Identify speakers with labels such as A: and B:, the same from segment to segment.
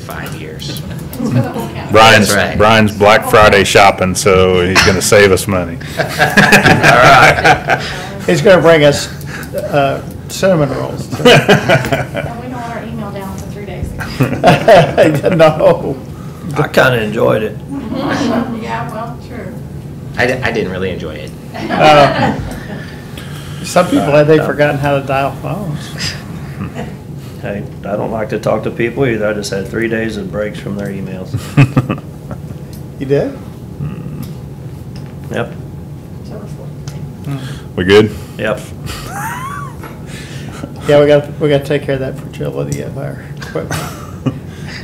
A: five years.
B: Brian's,
A: That's right.
B: Brian's Black Friday shopping, so he's gonna save us money.
C: He's gonna bring us uh, cinnamon rolls.
D: And we know our email down for three days.
C: No.
E: I kind of enjoyed it.
D: Yeah, well, true.
A: I, di- I didn't really enjoy it.
C: Some people, have they forgotten how to dial phones?
E: Hey, I don't like to talk to people either. I just had three days of breaks from their emails.
C: You did?
E: Yep,
D: So we're full.
B: We good?
E: yep.
C: Yeah, we got, we got to take care of that fragility of our equipment.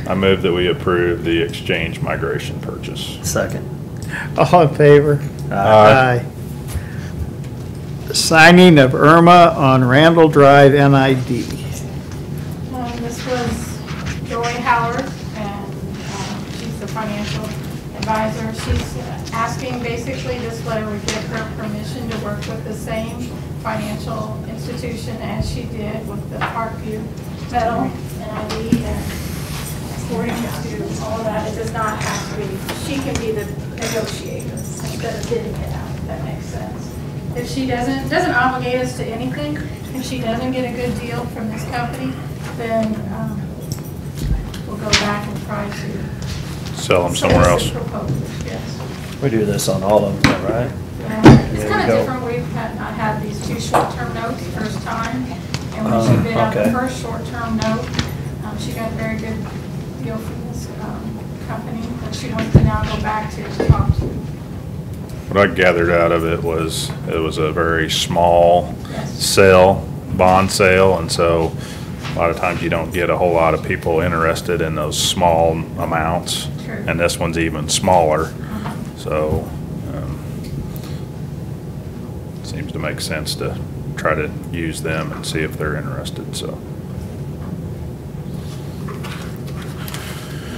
B: I move that we approve the exchange migration purchase.
E: Second.
C: All in favor?
B: Aye.
C: Aye. Signing of Irma on Randall Drive NID.
D: Um, This was Joy Howard, and um, she's the financial advisor. She's asking, basically, this letter would give her permission to work with the same financial institution as she did with the Parkview Metal and ID. And According to all that, it does not have to be, she can be the negotiator instead of bidding it out, if that makes sense. If she doesn't, doesn't obligate us to anything, if she doesn't get a good deal from this company, then um, we'll go back and try to.
B: Sell them somewhere else.
D: solicit proposals, yes.
E: We do this on all of them, right?
D: Um, It's kind
E: There you
D: of
E: go.
D: different, we've had, I had these two short-term notes the first time, and when she
E: Um,
D: bid out the
E: okay.
D: first short-term note, um, she got a very good deal from this um, company, but she wants to now go back to talk to
B: What I gathered out of it was, it was a very small
D: Yes.
B: sale, bond sale, and so a lot of times you don't get a whole lot of people interested in those small amounts.
D: True.
B: And this one's even smaller, so, um, seems to make sense to try to use them and see if they're interested, so.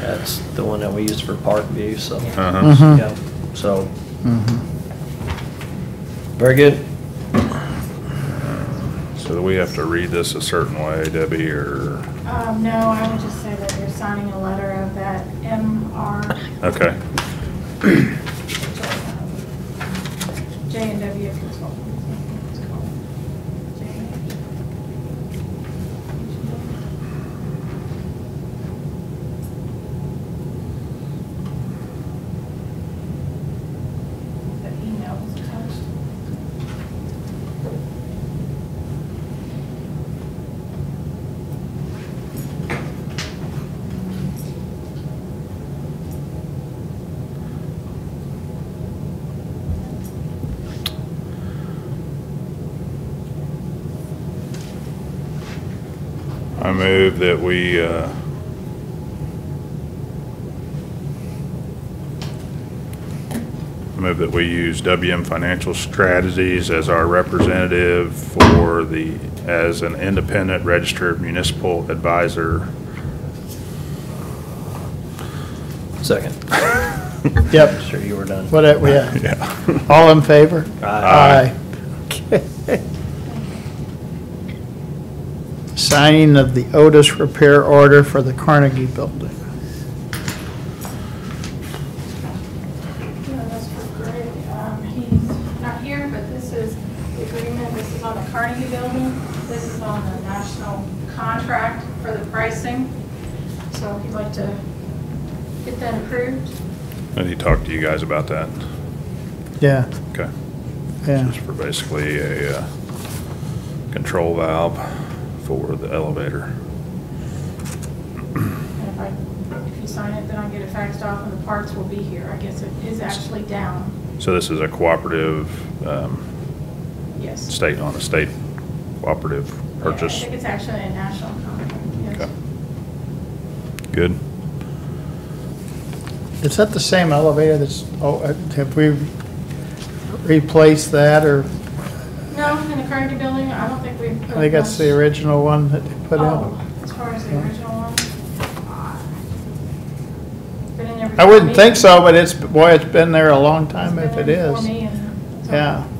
E: That's the one that we used for Parkview, so.
B: Uh-huh.
E: Yeah, so.
C: Mm-hmm.
E: Very good.
B: So do we have to read this a certain way, Debbie, or,
D: Um, no, I would just say that you're signing a letter of that MR,
B: okay,
D: J and W Consultants. I think it's called. J and W. The email was attached.
B: I move that we, uh, I move that we use WM Financial Strategies as our representative for the, as an independent registered municipal advisor.
E: Second.
C: Yep,
E: Sure you were done.
C: whatever, yeah.
B: Yeah.
C: All in favor?
B: Aye.
C: Aye. Signing of the Otis repair order for the Carnegie Building.
D: Yeah, that's for Greg. Um, He's not here, but this is the agreement, this is on the Carnegie Building, this is on the national contract for the pricing. So if you'd like to get that approved,
B: I need to talk to you guys about that.
C: Yeah,
B: Okay.
C: yeah.
B: Just for basically a uh, control valve for the elevator.
D: and if I, if you sign it, then I get it faxed off and the parts will be here. I guess it is actually down,
B: So this is a cooperative, um,
D: yes.
B: state, on a state cooperative
D: Yeah, I
B: purchase.
D: think it's actually a national contract, yes.
B: Okay. Good.
C: Is that the same elevator that's, oh, uh, have we replaced that or,
D: No, in the Carnegie Building, I don't think we've.
C: I think that's the original one that they put
D: Oh,
C: in?
D: As far as the original one? Been in there
C: I wouldn't
D: before me.
C: think so, but it's, boy, it's been there a long time
D: It's
C: if
D: been
C: it
D: there before
C: is.
D: me and-
C: Yeah.